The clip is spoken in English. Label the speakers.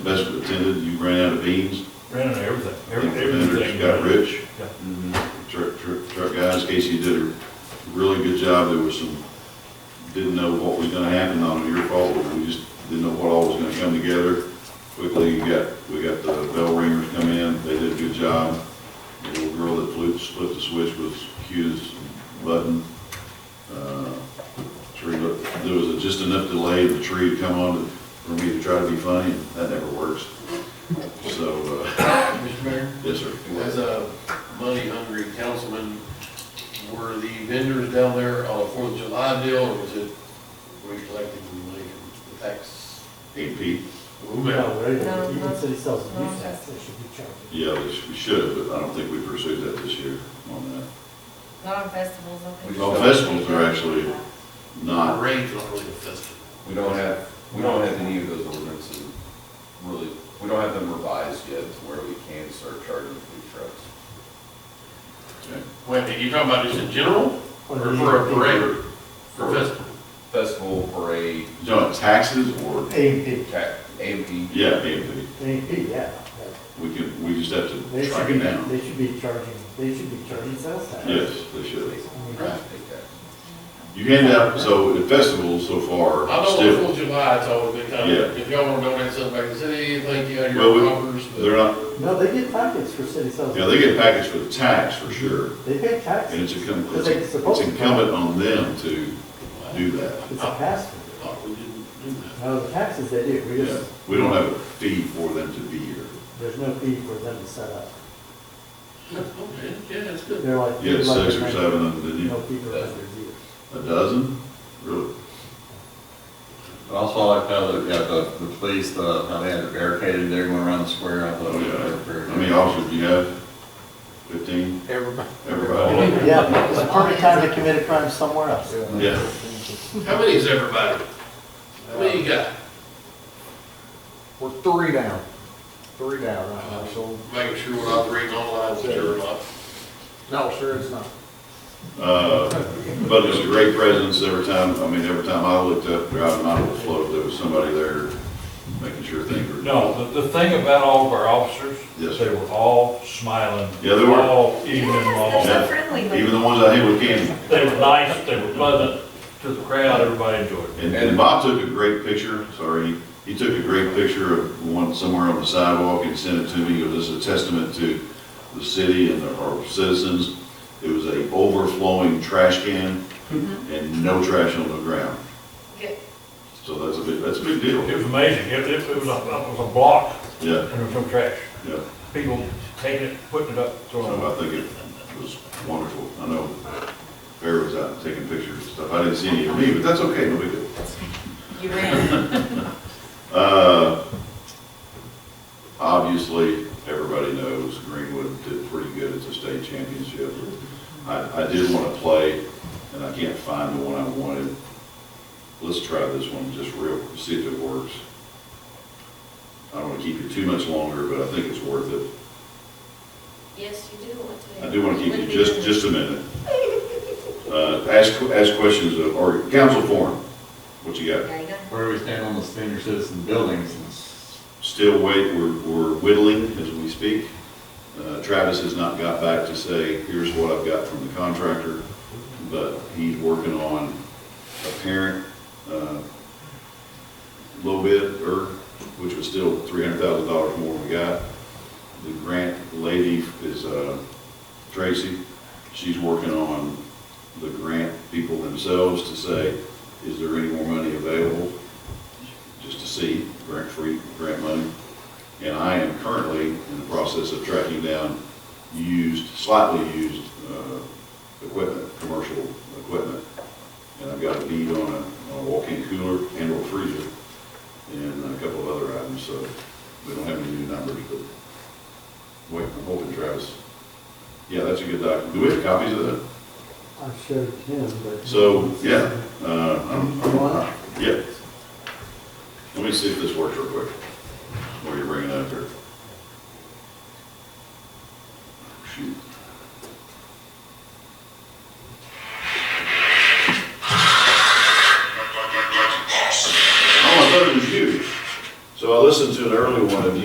Speaker 1: best attended, you ran out of beans.
Speaker 2: Ran out of everything,
Speaker 1: The
Speaker 2: every-
Speaker 1: vendors
Speaker 2: everything.
Speaker 1: Got rich.
Speaker 2: Yeah.
Speaker 1: Mm-hmm. Truck, truck, truck guys, Casey did a really good job, there was some, didn't know what was gonna happen, not your fault, but we just didn't know what all was gonna come together. Quickly, you got, we got the bell ringers come in, they did a good job. The little girl that flipped, flipped the switch was cute as a button. Uh, Tree, looked- there was a- just enough delay of the tree to come on for me to try to be funny, and that never works. So, uh,
Speaker 3: Mr. Mayor,
Speaker 1: yes, sir.
Speaker 3: as a money-hungry councilman, were the vendors down there on a Fourth of July deal, or was it, were you collecting the money from the tax?
Speaker 1: Hey, Pete,
Speaker 3: Whomever.
Speaker 4: No,
Speaker 5: No,
Speaker 4: even
Speaker 5: no.
Speaker 4: if city sells a
Speaker 5: No,
Speaker 4: use tax,
Speaker 5: that's-
Speaker 4: they should be charged.
Speaker 1: Yeah, we sh- we should, but I don't think we pursued that this year on that.
Speaker 5: Not on festivals, okay.
Speaker 1: Well, festivals are actually
Speaker 3: Not
Speaker 1: not,
Speaker 3: raised, not really a festival.
Speaker 6: We don't have, we don't have any of those ordinances really, we don't have them revised yet to where we can start charging food trucks.
Speaker 3: Wait, you talking about just in general, or for a parade, for festival?
Speaker 6: Festival, parade,
Speaker 1: you know, taxes or,
Speaker 4: A and P,
Speaker 6: tax, AMP,
Speaker 1: yeah, maybe,
Speaker 4: A and P, yeah.
Speaker 1: we can, we just have
Speaker 4: They
Speaker 1: to
Speaker 4: should
Speaker 1: track
Speaker 4: be,
Speaker 1: it down.
Speaker 4: they should be charging, they should be charging sales tax.
Speaker 1: Yes, they should.
Speaker 4: I mean,
Speaker 3: Right.
Speaker 6: state tax.
Speaker 1: You hand out, so at festivals so far,
Speaker 3: I know on Fourth
Speaker 1: still,
Speaker 3: of July, it's always been kind
Speaker 1: Yeah.
Speaker 3: of, if y'all wanna donate something back to the city, thank you, and
Speaker 1: Well, we-
Speaker 3: your offers,
Speaker 1: they're
Speaker 3: but
Speaker 1: not,
Speaker 4: No, they get packets for city sales.
Speaker 1: yeah, they get packaged for the tax for sure.
Speaker 4: They pay taxes.
Speaker 1: And it's incum-
Speaker 4: But
Speaker 1: it's
Speaker 4: they're
Speaker 1: it's
Speaker 4: supposed to.
Speaker 1: incumbent on them to do that.
Speaker 4: It's a pass through.
Speaker 3: I thought we didn't do that.
Speaker 4: No, the taxes they do, we
Speaker 1: Yeah,
Speaker 4: just,
Speaker 1: we don't have a fee for them to be here.
Speaker 4: there's no fee for them to set up.
Speaker 3: Okay, yeah, that's good.
Speaker 4: They're like.
Speaker 1: You had
Speaker 4: like
Speaker 1: six
Speaker 4: a
Speaker 1: or
Speaker 4: hundred-
Speaker 1: seven of them, didn't
Speaker 4: No
Speaker 1: you?
Speaker 4: fee for vendors either.
Speaker 1: A dozen? Really?
Speaker 7: But also I like how the, yeah, the, the police, uh, how they had it barricaded there going around the square, I thought.
Speaker 1: Oh,
Speaker 7: it was
Speaker 1: yeah.
Speaker 7: very-
Speaker 1: How many officers do you have? Fifteen?
Speaker 8: Everybody.
Speaker 1: Everybody?
Speaker 4: Yeah, it's the perfect time to commit a crime somewhere else.
Speaker 1: Yeah.
Speaker 3: How many is everybody? How many you got?
Speaker 8: We're three down, three down right now, so,
Speaker 3: Making sure we're not reading online, is there or not?
Speaker 8: no, sure, it's not.
Speaker 1: Uh, But it was a great presence every time, I mean, every time I looked up, driving out of the float, there was somebody there making sure things were.
Speaker 2: No, the, the thing about all of our officers,
Speaker 1: Yes,
Speaker 2: they
Speaker 1: sir.
Speaker 2: were all smiling.
Speaker 1: Yeah, they were.
Speaker 2: All even
Speaker 5: Yes,
Speaker 2: long.
Speaker 5: they're so friendly. but-
Speaker 1: Even the ones I hit with candy.
Speaker 2: They were nice, they were pleasant to the crowd, everybody enjoyed it.
Speaker 1: And- And Bob took a great picture, sorry, he took a great picture of one somewhere on the sidewalk and sent it to me. It was a testament to the city and our citizens. It was a overflowing trash can and no trash on the ground.
Speaker 5: Good.
Speaker 1: So that's a big, that's a big deal.
Speaker 2: It was amazing, it, it it was a, it was a block
Speaker 1: Yeah,
Speaker 2: and there was no trash.
Speaker 1: yeah.
Speaker 2: People taking it, putting it up, throwing it
Speaker 1: So
Speaker 2: up.
Speaker 1: I think it was wonderful. I know Bear was out taking pictures and stuff. I didn't see any of me, but that's okay, no big deal.
Speaker 5: You ran.
Speaker 1: Uh, Obviously, everybody knows Greenwood did pretty good at the state championship. I, I did want to play, and I can't find the one I wanted. Let's try this one just real, see if it works. I don't want to keep you too much longer, but I think it's worth it.
Speaker 5: Yes, you do want to.
Speaker 1: I do want to keep you just, just a minute. Uh, Ask, ask questions of, or council forum, what you got?
Speaker 5: There you go.
Speaker 7: Where we stand on the senior citizen buildings and
Speaker 1: still wait, we're, we're whittling as we speak. Uh, Travis has not got back to say, here's what I've got from the contractor, but he's working on a parent, uh, low bid, or, which was still three hundred thousand dollars more than we got. The grant lady is, uh, Tracy, she's working on the grant people themselves to say, is there any more money available? just to see grant-free, grant money. And I am currently in the process of tracking down used, slightly used, uh, equipment, commercial equipment. And I've got a bead on a, on a walk-in cooler and or freezer and a couple of other items, so we don't have any new numbers, but wait, I'm hoping Travis. Yeah, that's a good doc. Do we have copies of that?
Speaker 4: I showed him, but.
Speaker 1: So, yeah, uh, I'm, I'm, yeah. Let me see if this works real quick. Oh,